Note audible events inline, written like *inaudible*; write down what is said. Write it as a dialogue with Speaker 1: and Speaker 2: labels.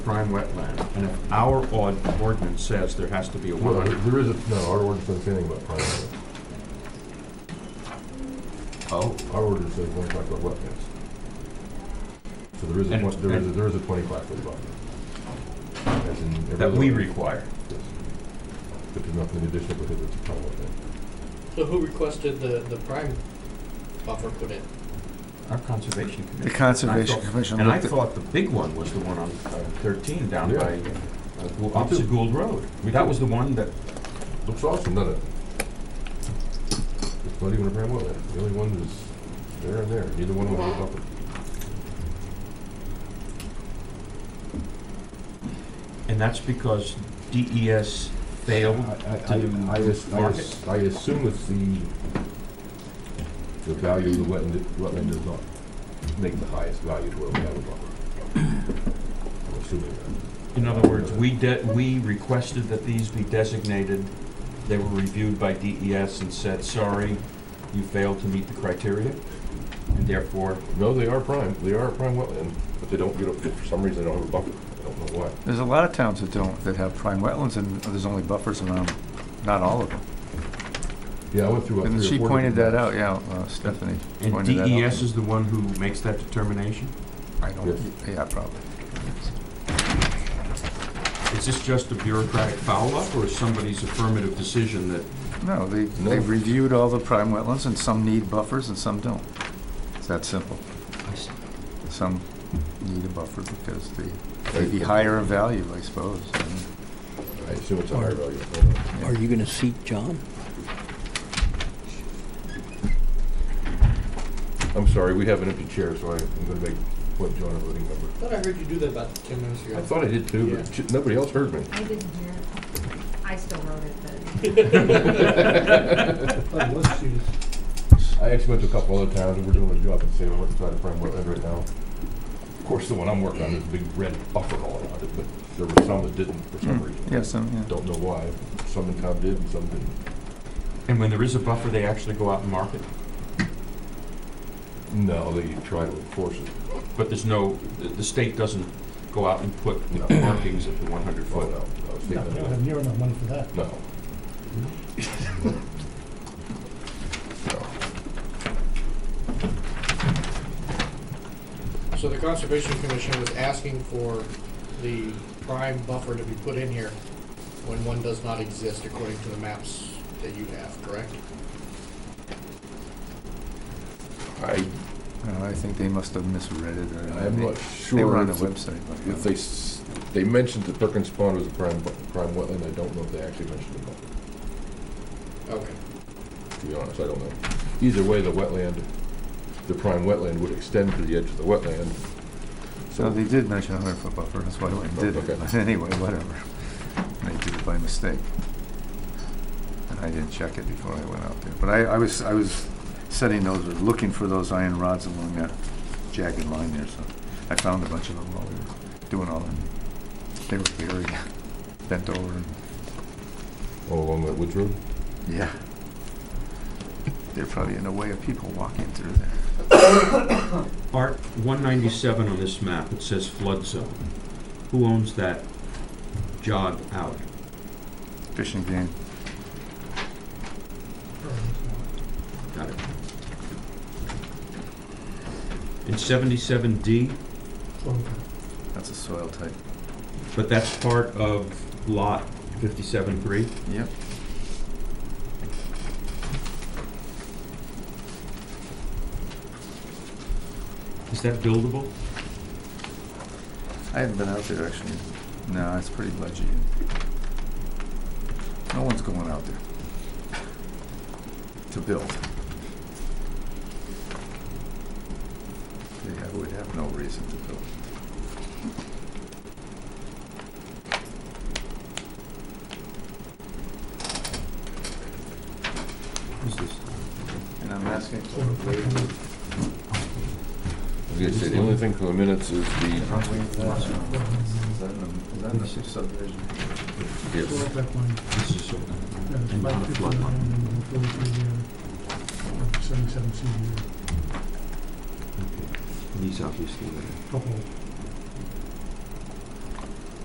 Speaker 1: prime wetland, and if our ord- ordinance says there has to be a
Speaker 2: Well,
Speaker 1: wetland.
Speaker 2: there is, a- no, our ordinance doesn't say anything about private lands.
Speaker 1: Oh.
Speaker 2: Our ordinance says one five foot wetlands. So there is a,
Speaker 1: And
Speaker 2: twen-
Speaker 1: it's-
Speaker 2: there is, a-
Speaker 1: and-
Speaker 2: there is a twenty-five foot buffer. As in every
Speaker 1: That
Speaker 2: other
Speaker 1: we
Speaker 2: one.
Speaker 1: require.
Speaker 2: Yes. But there's nothing additional because it's a private wetland.
Speaker 3: So who requested the, the prime buffer put in?
Speaker 1: Our conservation commission.
Speaker 4: The Conservation
Speaker 1: And I thought-
Speaker 4: Commission
Speaker 1: And I
Speaker 4: looked at-
Speaker 1: thought the big one was the one on uh, thirteen down
Speaker 2: Yeah.
Speaker 1: by, uh, Gould- opposite Gould Road.
Speaker 2: Me
Speaker 1: That
Speaker 2: too.
Speaker 1: was the one that,
Speaker 2: Looks awesome, doesn't it? It's not even a prime wetland. The only one is there and there. Neither one of them is a buffer.
Speaker 1: and that's because DES failed
Speaker 2: I,
Speaker 1: to
Speaker 2: I, I, as- I,
Speaker 1: mark
Speaker 2: as- I assume it's the, the value of the wetland, wetland does not make the highest value to where we have a buffer. I'm assuming that.
Speaker 1: In other words, we de, we requested that these be designated, they were reviewed by DES and said, sorry, you failed to meet the criteria, and therefore,
Speaker 2: No, they are prime, they are a prime wetland, but they don't get, a- for some reason, they don't have a buffer. I don't know why.
Speaker 4: There's a lot of towns that don't, that have prime wetlands, and there's only buffers around, 'em. not all of them.
Speaker 2: Yeah, I went through about
Speaker 4: And
Speaker 2: three
Speaker 4: she
Speaker 2: or four
Speaker 4: pointed
Speaker 2: different-
Speaker 4: that out, yeah, uh, Stephanie
Speaker 1: and
Speaker 4: pointed that out.
Speaker 2: E
Speaker 1: DES is the one who makes that determination?
Speaker 4: I don't, yeah, probably.
Speaker 1: Is this just a bureaucratic foul-up, or is somebody's affirmative decision that,
Speaker 4: No, they,
Speaker 2: No.
Speaker 4: they've reviewed all the prime wetlands, and some need buffers and some don't. It's that simple. Some need a buffer because they, they be higher in value, I suppose.
Speaker 2: Hmm.
Speaker 4: and-
Speaker 2: I assume it's a higher value.
Speaker 5: Are you going to seat John?
Speaker 2: I'm sorry, we have an empty chair, so I- I'm gonna make, what, John a voting member.
Speaker 3: Thought I heard you do that about ten minutes ago.
Speaker 2: I thought I did too, but j- nobody else heard me.
Speaker 6: I didn't hear it. I still wrote it, but
Speaker 2: I actually went to a couple other towns and we're doing a job and saying, we're trying to frame wetland right now. Of course, the one I'm working on is a big red buffer all around it, but there were some that didn't for some reason.
Speaker 4: Yeah, some, yeah.
Speaker 2: Don't know why. Some in town did and some didn't.
Speaker 1: and when there is a buffer, they actually go out and mark it?
Speaker 2: No, they try to enforce it.
Speaker 1: But there's no, the- the state doesn't go out and put
Speaker 2: No.
Speaker 1: markings at the one hundred
Speaker 2: Oh,
Speaker 1: foot.
Speaker 2: no. no, it's
Speaker 7: No,
Speaker 2: not
Speaker 7: we
Speaker 2: that
Speaker 7: don't
Speaker 2: way.
Speaker 7: have near enough money for that.
Speaker 2: No. No.
Speaker 3: So the Conservation Commission was asking for the prime buffer to be put in here when one does not exist according to the maps that you have, correct?
Speaker 2: I,
Speaker 4: Uh, I think they must have misread it, or
Speaker 2: I'm
Speaker 4: they-
Speaker 2: not
Speaker 4: they were
Speaker 2: sure
Speaker 4: on the
Speaker 2: if the-
Speaker 4: website. but, uh,
Speaker 2: if they, s- they mentioned that Perkins Pond was a prime, bu- prime wetland. I don't know if they actually mentioned it.
Speaker 3: Okay.
Speaker 2: to be honest, I don't know. Either way, the wetland, the prime wetland would extend to the edge of the wetland.
Speaker 4: No,
Speaker 2: So,
Speaker 4: they did mention a hundred foot buffer, that's why I did
Speaker 2: Okay.
Speaker 4: it, *laughs* but anyway, whatever. They did it by mistake. And I didn't check it before I went out there, but I, I was, I was setting those, or looking for those iron rods along that jagged line there, so I found a bunch of them while we were doing all that. They were buried, *laughs* bent over, and,
Speaker 2: all along that woods road?
Speaker 4: yeah. They're probably in the way of people walking through there.
Speaker 1: Art one ninety-seven on this map, it says flood zone. Who owns that jog out?
Speaker 4: Fishing game,
Speaker 1: Got it. In seventy-seven D,
Speaker 4: that's a soil type.
Speaker 1: but that's part of lot fifty-seven three.
Speaker 4: Yep.
Speaker 1: Is that buildable?
Speaker 4: I haven't been out there actually. No, it's pretty ledgy. No one's going out there to build. They have- would have no reason to build.
Speaker 1: Is this?
Speaker 4: And I'm asking for a waiver.
Speaker 7: Well,
Speaker 2: I was gonna say, the only thing for the minutes is the,
Speaker 4: I'll waive that. Is that in the- is that in the subdivision?
Speaker 2: yes,
Speaker 7: that line,
Speaker 1: This is, sort
Speaker 7: uh,
Speaker 1: of- and not a flood
Speaker 7: 559
Speaker 1: line.
Speaker 7: and then 43, uh, 77 C,
Speaker 1: These obviously, are-
Speaker 7: a couple of